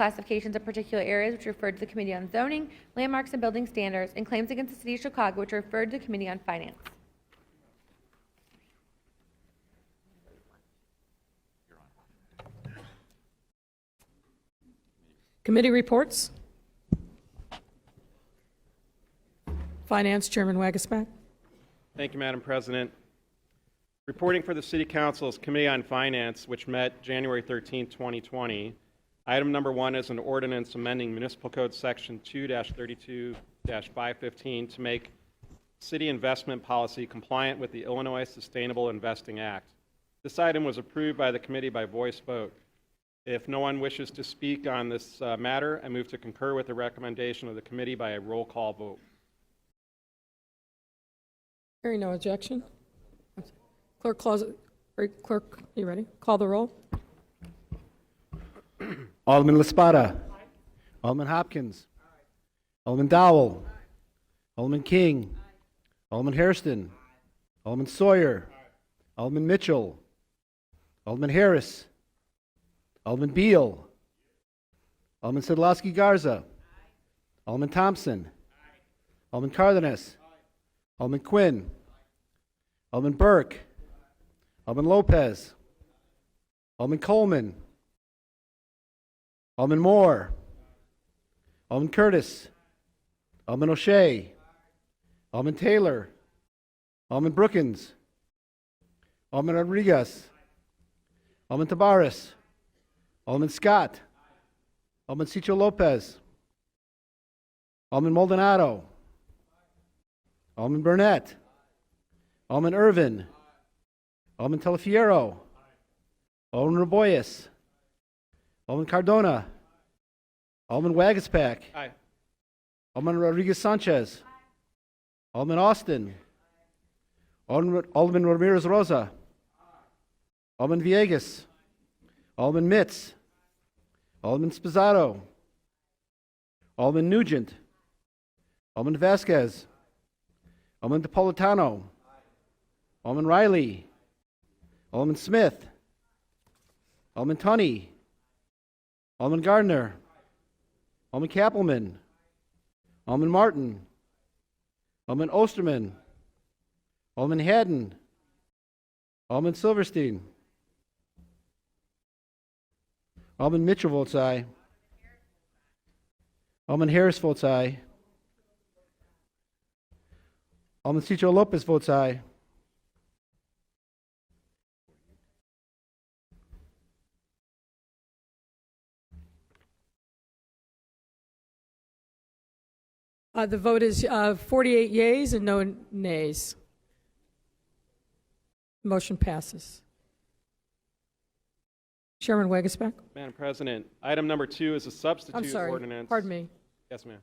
reclassifications of particular areas which referred to the Committee on Zoning, Landmarks and Building Standards, and claims against the City of Chicago which referred to the Committee on Finance. Committee reports. Finance Chairman Wagasback. Thank you, Madam President. Reporting for the City Council's Committee on Finance, which met January 13, 2020. Item number one is an ordinance amending Municipal Code Section 2-32-515 to make city investment policy compliant with the Illinois Sustainable Investing Act. This item was approved by the committee by voice vote. If no one wishes to speak on this uh, matter, I move to concur with the recommendation of the committee by a roll call vote. Hearing no objection. Clerk, close, or clerk, you ready? Call the roll. Alderman Laspada. Alderman Hopkins. Alderman Dowell. Alderman King. Alderman Hairston. Alderman Sawyer. Alderman Mitchell. Alderman Harris. Alderman Beal. Alderman Sedlowski Garza. Alderman Thompson. Alderman Cardenas. Alderman Quinn. Alderman Burke. Alderman Lopez. Alderman Coleman. Alderman Moore. Alderman Curtis. Alderman O'Shea. Alderman Taylor. Alderman Brookins. Alderman Rodriguez. Alderman Tabaris. Alderman Scott. Alderman Cicho Lopez. Alderman Maldonado. Alderman Burnett. Alderman Irvin. Alderman Telefiero. Alderman Raboyes. Alderman Cardona. Alderman Wagispack. Aye. Alderman Rodriguez Sanchez. Alderman Austin. Alderman Alderman Ramirez Rosa. Alderman Villegas. Alderman Mitz. Alderman Spizzato. Alderman Nugent. Alderman Vasquez. Alderman Napolitano. Alderman Riley. Alderman Smith. Alderman Tunney. Alderman Gardner. Alderman Kappelman. Alderman Martin. Alderman Osterman. Alderman Haddon. Alderman Silverstein. Alderman Mitchell votes aye. Alderman Harris votes aye. Alderman Cicho Lopez votes aye. Uh, The vote is uh, 48 yeas and no nays. Motion passes. Chairman Wagasback. Madam President, item number two is a I'm substitute sorry. ordinance. Pardon me. Yes, ma'am.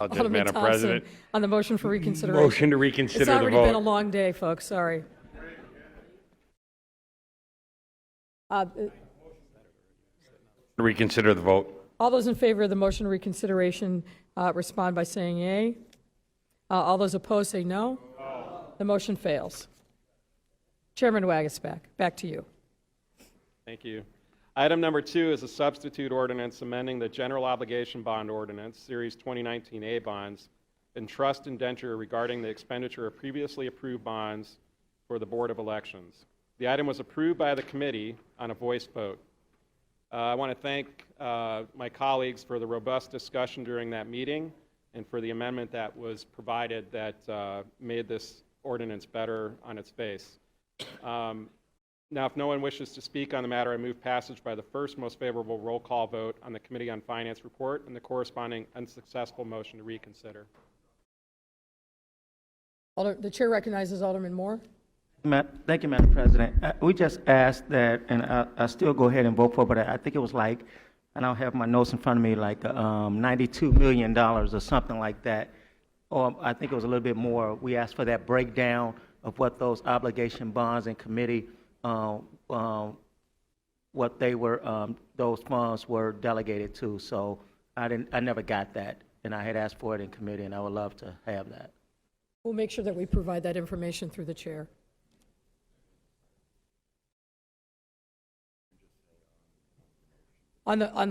I'll do it, Alderman Madam Thompson, President. On the motion for reconsideration. Motion to reconsider It's the already been a vote. long day, folks, sorry. Uh, Reconsider the vote. All those in favor of the motion to reconsideration uh, respond by saying yea. Uh, All those opposed say no. The motion fails. Chairman Wagasback, back to you. Thank you. Item number two is a substitute ordinance amending the general obligation bond ordinance, Series 2019A bonds, and trust indenture regarding the expenditure of previously approved bonds for the Board of Elections. The item was approved by the committee on a voice vote. Uh, I want to thank uh, my colleagues for the robust discussion during that meeting and for the amendment that was provided that uh, made this ordinance better on its face. Um, Now, if no one wishes to speak on the matter, I move passage by the first most favorable roll call vote on the Committee on Finance report and the corresponding unsuccessful motion to reconsider. Alder- The chair recognizes Alderman Moore. Ma- Thank you, Madam President. Uh, We just asked that, and I I still go ahead and vote for, it, but I I think it was like, I don't have my notes in front of me, like um, $92 million or something like that. Or I think it was a little bit more. We asked for that breakdown of what those obligation bonds and committee, uh, um, what they were, um, those funds were delegated to. So I didn't, I never got that, and I had asked for it in committee, and I would love to have that. We'll make sure that we provide that information through the chair. On the, on the